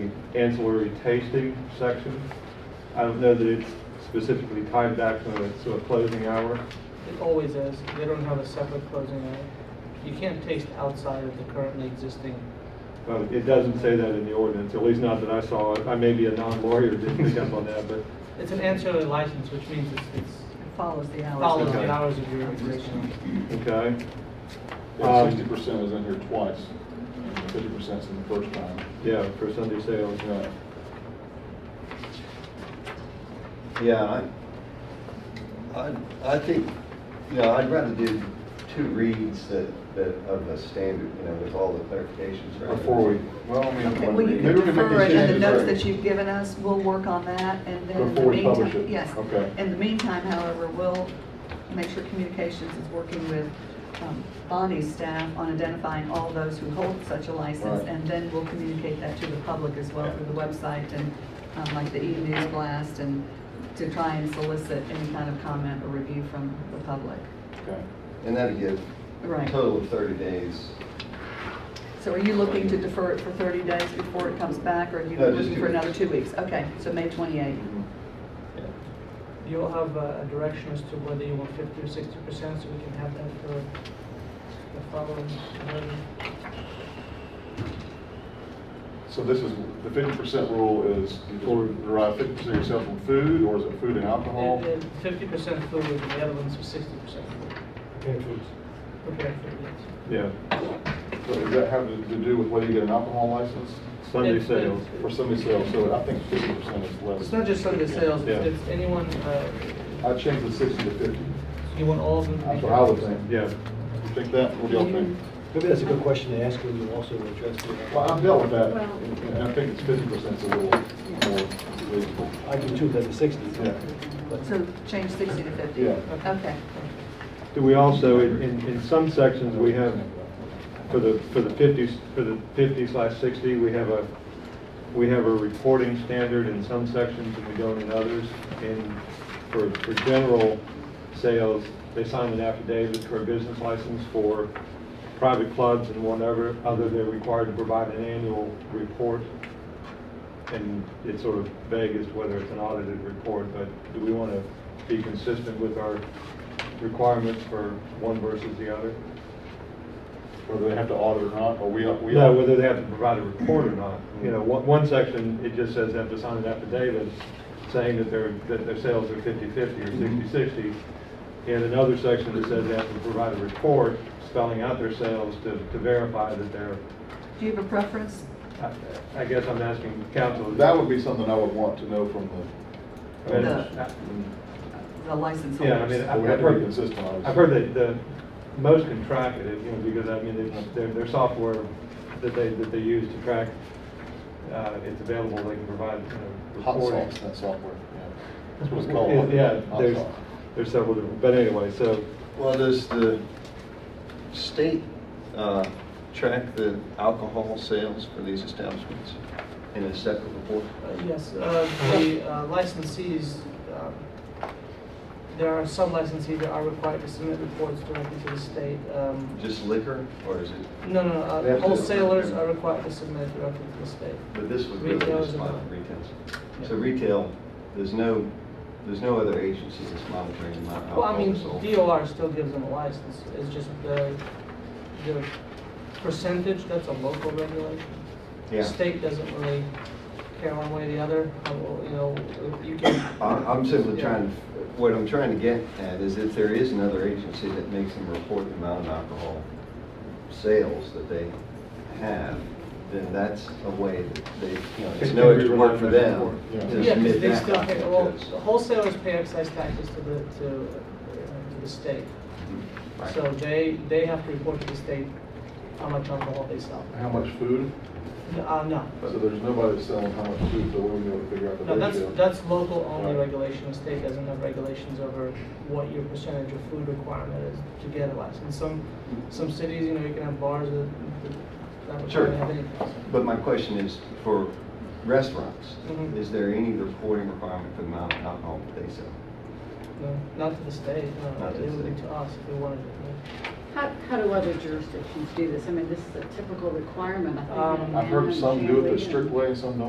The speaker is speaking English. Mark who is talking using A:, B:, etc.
A: the ancillary tasting section. I don't know that it's specifically tied back to a, to a closing hour.
B: It always is. They don't have a separate closing hour. You can't taste outside of the currently existing.
A: But it doesn't say that in the ordinance, at least not that I saw. I may be a non-lawyer, didn't pick up on that, but
B: It's an ancillary license, which means it's, it's
C: Follows the hours.
B: follows
A: okay.
B: the hours of your operation.
A: Okay. Um,
D: Sixty percent is in here twice, fifty percent's in the first time.
A: Yeah, for Sunday sales, yeah.
D: Yeah.
E: Yeah, I, I, I think, you know, I'd rather do two reads that, that of the standard, you know, with all the clarifications. rather
D: Or
E: than-
D: four week, well, I mean.
C: Okay,
D: one
C: well, you
D: read.
C: can
D: Maybe we can make
C: defer it
D: these
C: in the
D: changes
C: notes
D: later.
C: that you've given us, we'll work on that, and then in the
D: Before we publish
C: meantime,
D: it.
C: yes.
D: Okay.
C: In the meantime, however, we'll make sure communications is working with um, Bonnie's staff on identifying all those who hold such a license,
D: Right.
C: and then we'll communicate that to the public as well through the website and um, like the e-news blast, and to try and solicit any kind of comment or review from the public.
D: Okay.
E: And that'd give a
C: Right.
E: total of thirty days.
C: So are you looking to defer it for 30 days before it comes back, or are you
E: No, just
C: looking
E: two
C: for
E: weeks.
C: another two weeks? Okay, so May 28th.
A: Mm-hmm.
E: Yeah.
B: You'll have uh, a a direction as to whether you want fifty or sixty percent, so we can have that for the following.
D: So this is, the fifty percent rule is, you just derive fifty percent of your sales from food, or is it food and alcohol?
B: Fifty percent food, and the other ones are sixty percent food. Prepared food, yes.
A: Yeah,
D: So does that have to do with whether you get an alcohol license
A: Sunday
B: It's-
A: sales.
B: it's-
D: or Sunday sales? So I think fifty percent is less.
B: It's not just Sunday sales,
A: Yeah.
B: it's it's anyone, uh,
D: I changed the sixty to fifty.
B: you want all of them to be.
D: That's what I would think.
A: Yeah,
D: You think that? What do y'all think?
F: Maybe that's a good question to ask when you also address
A: Mm-hmm.
D: Well, I've
F: the,
D: dealt with that,
C: Well-
D: and I think it's fifty percent is a little more reasonable.
F: I do too, that's the sixties.
D: Yeah.
C: So change 60 to 50?
D: Yeah.
C: Okay.
A: do we also, in, in in some sections, we have, for the, for the fifties, for the fifty slash sixty, we have a, we have a reporting standard in some sections and we don't in others. And for, for general sales, they sign an affidavit for a business license for private clubs and whatever, other they're required to provide an annual report. And it's sort of vague as to whether it's an audited report, but do we want to be consistent with our requirements for one versus the other?
D: Whether they have to audit or not, or we, we.
A: No, whether they have to provide a report or not. You know, one, one section, it just says they have to sign an affidavit saying that their, that their sales are 50/50
D: Mm-hmm.
A: or 60/60. And another section that says they have to provide a report spelling out their sales to, to verify that they're,
C: Do you have a preference?
A: I- I guess I'm asking council.
D: That would be something I would want to know from
A: And-
C: The- The license
A: Yeah, I
C: holders?
A: mean,
D: the, we have to be consistent, obviously.
A: I've heard that the most can track it, you know, because I mean, it's- their, their software that they, that they use to track, uh, it's available, they can provide, you know,
D: Hot
A: reporting.
D: sauce, that software, yeah. That's what it's called.
A: Yeah,
D: hot
A: there's,
D: sauce.
A: there's several different, but anyway, so,
E: Well, does the state, uh, track the alcohol sales for these establishments in a separate report?
B: Uh, Yes, uh, the uh, licensees, um, there are some licensees that are required to submit reports directly to the state. um,
E: Just liquor, or is it,
B: No, no,
E: They
B: uh,
E: have to-
B: wholesalers are required to submit directly to the state.
E: but this would really
B: Retail
E: just
B: is
E: model
B: about-
E: retail. So retail, there's no, there's no other agency that's monitoring the amount of
B: Well, I mean,
E: alcohol sold.
B: DOR still gives them a license, it's just the, the percentage, that's a local regulation.
E: Yeah.
B: State doesn't really care one way or the other, Uh, well, you know, you can.
E: I- I'm simply
B: Yeah.
E: trying, what I'm trying to get at is if there is another agency that makes them report the amount of alcohol sales that they have, then that's a way that they, you know, it's
A: Can-
E: no
A: can we
E: extra
A: rely
E: work for
A: on that
E: them
A: report? Yeah.
E: to
B: Yeah, because
E: submit
B: they
E: that
B: still pay,
E: document to
B: well,
E: us.
B: wholesalers pay excise taxes to the, to, uh, to the state.
E: Right.
B: So they, they have to report to the state how much alcohol they sell.
D: How much food?
B: Uh, no,
D: So there's nobody that's selling how much food, so we'll be able to figure out the
B: no, that's,
D: ratio.
B: that's local only
D: Right.
B: regulation, the state doesn't have regulations over what your percentage of food requirement is to get a license. Some, some cities, you know, you can have bars that, that
E: Sure.
B: don't have anything.
E: But my question is, for restaurants,
B: Mhm.
E: is there any reporting requirement for the amount of alcohol that they sell?
B: No, not to the state, no, it
E: Not to the
B: would be
E: state.
B: to us if we wanted it.
G: How, how do other jurisdictions do this? I mean, this is a typical requirement, I think.
B: Um,
G: in
D: I've heard some do it the
G: Maryland,
D: strict way and some don't.